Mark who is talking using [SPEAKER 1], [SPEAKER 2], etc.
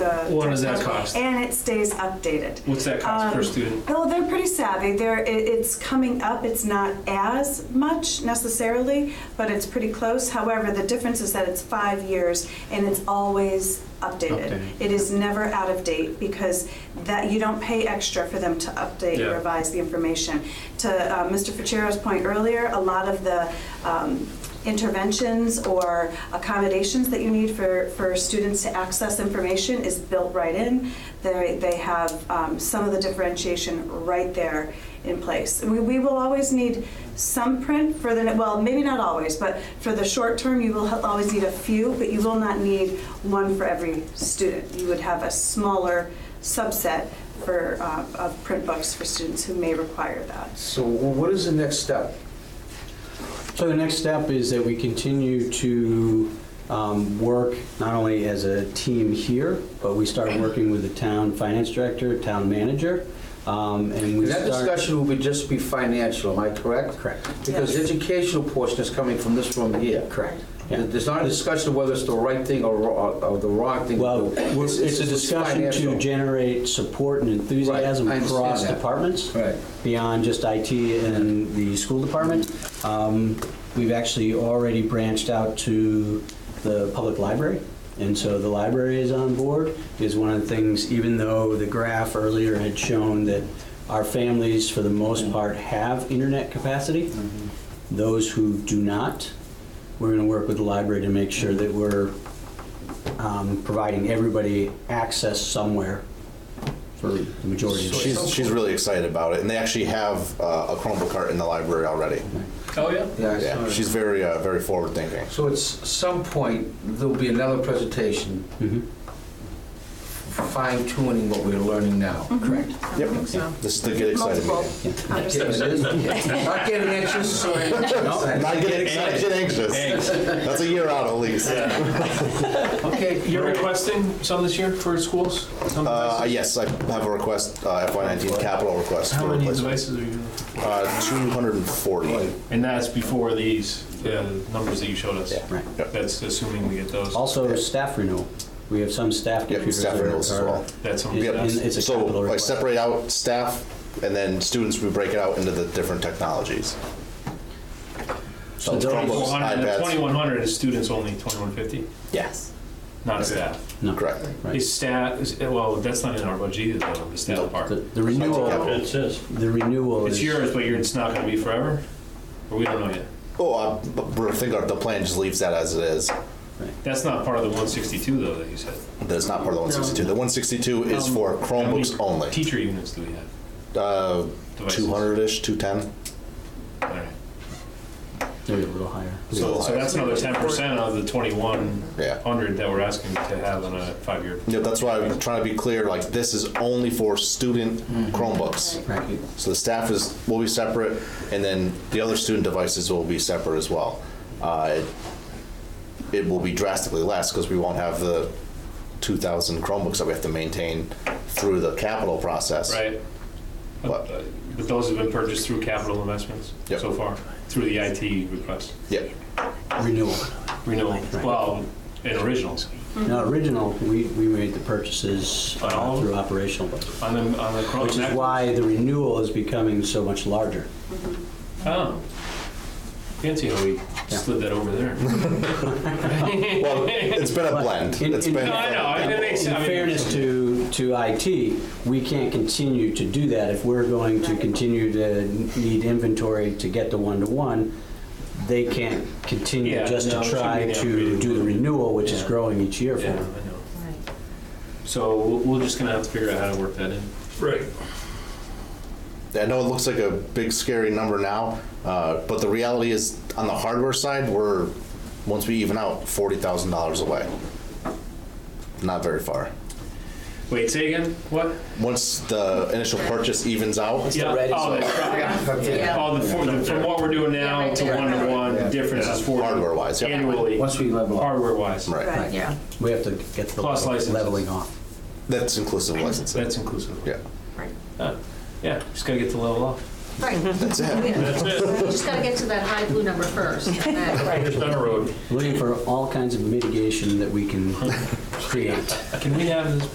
[SPEAKER 1] What does that
[SPEAKER 2] different.
[SPEAKER 1] cost?
[SPEAKER 2] And it stays updated.
[SPEAKER 1] What's that cost per
[SPEAKER 2] Um,
[SPEAKER 1] student?
[SPEAKER 2] Oh, they're pretty savvy. They're, it, it's coming up. It's not as much necessarily, but it's pretty close. However, the difference is that it's five years and it's always updated.
[SPEAKER 3] Updated.
[SPEAKER 2] It is never out of date because that you don't pay extra for them to update
[SPEAKER 1] Yeah.
[SPEAKER 2] and revise the information. To uh, Mr. Ficero's point earlier, a lot of the um, interventions or accommodations that you need for, for students to access information is built right in. They, they have um, some of the differentiation right there in place. And we, we will always need some print for the, well, maybe not always, but for the short term, you will ha- always need a few, but you will not need one for every student. You would have a smaller subset for, uh, of print books for students who may require that.
[SPEAKER 4] So what is the next step?
[SPEAKER 3] So the next step is that we continue to um, work not only as a team here, but we start working with the town finance director, town manager, um, and we
[SPEAKER 4] That
[SPEAKER 3] start.
[SPEAKER 4] discussion will be just be financial, am I correct?
[SPEAKER 3] Correct.
[SPEAKER 4] Because the educational portion is coming from this room here.
[SPEAKER 3] Correct. Yeah.
[SPEAKER 4] There's not a discussion of whether it's the right thing or, ro- or the wrong thing. to
[SPEAKER 3] Well,
[SPEAKER 4] do.
[SPEAKER 3] we're- it's a discussion to
[SPEAKER 4] financial.
[SPEAKER 3] generate support and enthusiasm
[SPEAKER 4] Right, I understand
[SPEAKER 3] across
[SPEAKER 4] that.
[SPEAKER 3] departments.
[SPEAKER 4] Right.
[SPEAKER 3] Beyond just IT and the school department. Um, We've actually already branched out to the public library. And so the library is on board, is one of the things, even though the graph earlier had shown that our families, for the most part, have internet capacity. Those who do not, we're going to work with the library to make sure that we're um, providing everybody access somewhere for the majority of
[SPEAKER 5] She's, she's really excited about it, and they actually have uh, a Chromebook cart in the library already.
[SPEAKER 1] Oh, yeah.
[SPEAKER 4] Yeah, I saw
[SPEAKER 5] Yeah,
[SPEAKER 4] that.
[SPEAKER 5] she's very, uh, very forward thinking.
[SPEAKER 4] So at s- some point, there'll be another presentation
[SPEAKER 3] Mhm.
[SPEAKER 4] fine tuning what we're learning now. Correct.
[SPEAKER 5] Yep, this is the get excited
[SPEAKER 2] Um, Multiple
[SPEAKER 5] meeting.
[SPEAKER 2] conversations.
[SPEAKER 4] Not getting anxious or anything.
[SPEAKER 5] Not get excited, get anxious. That's a year out at least.
[SPEAKER 4] Okay.
[SPEAKER 1] You're requesting some this year for schools? Some
[SPEAKER 5] Uh,
[SPEAKER 1] devices?
[SPEAKER 5] yes, I have a request, uh, FY19 capital request
[SPEAKER 1] How
[SPEAKER 5] for
[SPEAKER 1] many
[SPEAKER 5] replacement.
[SPEAKER 1] devices are you?
[SPEAKER 5] Uh, 240.
[SPEAKER 1] And that's before these, the numbers that you showed us?
[SPEAKER 5] Yeah.
[SPEAKER 3] Right.
[SPEAKER 5] Yep.
[SPEAKER 1] That's assuming we get those.
[SPEAKER 3] Also, staff renewal. We have some staff
[SPEAKER 5] Yep,
[SPEAKER 3] computers.
[SPEAKER 5] staff
[SPEAKER 3] that
[SPEAKER 5] renewals as
[SPEAKER 3] are-
[SPEAKER 5] well.
[SPEAKER 1] That's something
[SPEAKER 3] Yep.
[SPEAKER 1] that's-
[SPEAKER 3] And it's a capital
[SPEAKER 5] So I
[SPEAKER 3] request.
[SPEAKER 5] separate out staff and then students, we break it out into the different technologies.
[SPEAKER 3] So
[SPEAKER 5] So
[SPEAKER 3] those-
[SPEAKER 5] Chromebooks,
[SPEAKER 1] 2100 the
[SPEAKER 5] iPads,
[SPEAKER 1] 2100 is students only, 2150,
[SPEAKER 5] yes,
[SPEAKER 1] not staff.
[SPEAKER 3] No.
[SPEAKER 5] correct.
[SPEAKER 3] Right.
[SPEAKER 1] Is staff, is- well, that's not in our budget either, though, the
[SPEAKER 3] No,
[SPEAKER 1] staff part.
[SPEAKER 3] The the renewal,
[SPEAKER 5] capital.
[SPEAKER 6] It says,
[SPEAKER 3] the renewal is.
[SPEAKER 1] It's yours, but you're- it's not going to be forever? Or we don't know yet?
[SPEAKER 5] Oh, I I think our- the plan just leaves that as it is.
[SPEAKER 1] That's not part of the 162, though, that you said.
[SPEAKER 5] That is not part of the 162. The 162 is
[SPEAKER 1] Um,
[SPEAKER 5] for
[SPEAKER 1] How many
[SPEAKER 5] Chromebooks only.
[SPEAKER 1] Teacher units do we have?
[SPEAKER 5] Uh,
[SPEAKER 1] Devices?
[SPEAKER 5] 200-ish, 210.
[SPEAKER 1] All right.
[SPEAKER 3] Maybe a little higher.
[SPEAKER 1] So, so that's another ten percent of the twenty-one
[SPEAKER 5] Yeah.
[SPEAKER 1] hundred that we're asking to have on a five-year.
[SPEAKER 5] Yeah, that's why I'm trying to be clear, like, this is only for student
[SPEAKER 1] Mm-hmm.
[SPEAKER 5] Chromebooks.
[SPEAKER 3] Right.
[SPEAKER 5] So the staff is, will be separate, and then the other student devices will be separate as well. Uh, it- It will be drastically less, because we won't have the 2,000 Chromebooks that we have to maintain through the capital process.
[SPEAKER 1] Right? But uh,
[SPEAKER 5] What?
[SPEAKER 1] but those have been purchased through capital investments
[SPEAKER 5] Yep.
[SPEAKER 1] so far, through the IT request,
[SPEAKER 5] Yep.
[SPEAKER 3] Renewal.
[SPEAKER 1] renewal, well, and originals.
[SPEAKER 3] Now, original, we, we made the purchases
[SPEAKER 1] On all
[SPEAKER 3] uh,
[SPEAKER 1] of
[SPEAKER 3] through operational budget,
[SPEAKER 1] On the, on the Chrome.
[SPEAKER 3] which is why the renewal is becoming so much larger.
[SPEAKER 1] Oh. Fancy how we slid that over there.
[SPEAKER 5] Well, it's been a blend.
[SPEAKER 3] In-
[SPEAKER 5] It's
[SPEAKER 3] in-
[SPEAKER 5] been.
[SPEAKER 1] No, I know, it makes,
[SPEAKER 3] In
[SPEAKER 1] I mean,
[SPEAKER 3] fairness to, to IT, we can't continue to do that if we're going to continue to need inventory to get the one-to-one. They can't continue
[SPEAKER 1] Yeah,
[SPEAKER 3] just
[SPEAKER 1] no,
[SPEAKER 3] to
[SPEAKER 1] it should
[SPEAKER 3] try
[SPEAKER 1] be the
[SPEAKER 3] to
[SPEAKER 1] upgraded
[SPEAKER 3] do the
[SPEAKER 1] one.
[SPEAKER 3] renewal, which is
[SPEAKER 1] Yeah.
[SPEAKER 3] growing each year for
[SPEAKER 1] yeah, I know.
[SPEAKER 3] them.
[SPEAKER 1] So we're we're just gonna have to figure out how to work that in.
[SPEAKER 6] right,
[SPEAKER 5] I know it looks like a big scary number now, uh, but the reality is on the hardware side, we're once we even out forty thousand dollars away. Not very far.
[SPEAKER 1] Wait, say again, what?
[SPEAKER 5] Once the initial purchase evens out,
[SPEAKER 1] Yeah, oh, that's right. Oh, the, four- the- from what we're doing
[SPEAKER 7] Yeah,
[SPEAKER 1] now
[SPEAKER 7] right
[SPEAKER 1] to
[SPEAKER 7] there.
[SPEAKER 1] one to one, the difference is forty.
[SPEAKER 5] hardware wise, yeah,
[SPEAKER 1] Annually,
[SPEAKER 4] Once we level up.
[SPEAKER 1] hardware wise.
[SPEAKER 5] right.
[SPEAKER 2] Right.
[SPEAKER 7] Yeah,
[SPEAKER 3] We have to get the
[SPEAKER 1] Plus licenses.
[SPEAKER 3] leveling off.
[SPEAKER 5] That's inclusive licensing.
[SPEAKER 1] That's inclusive.
[SPEAKER 5] Yeah,
[SPEAKER 7] right.
[SPEAKER 1] Uh, Yeah, just gotta get the level up.
[SPEAKER 7] Right,
[SPEAKER 5] that's it.
[SPEAKER 7] yeah. Just gotta get to that high blue number first. and then-
[SPEAKER 1] There's not a road.
[SPEAKER 3] Looking for all kinds of mitigation that we can create.
[SPEAKER 1] Can we have this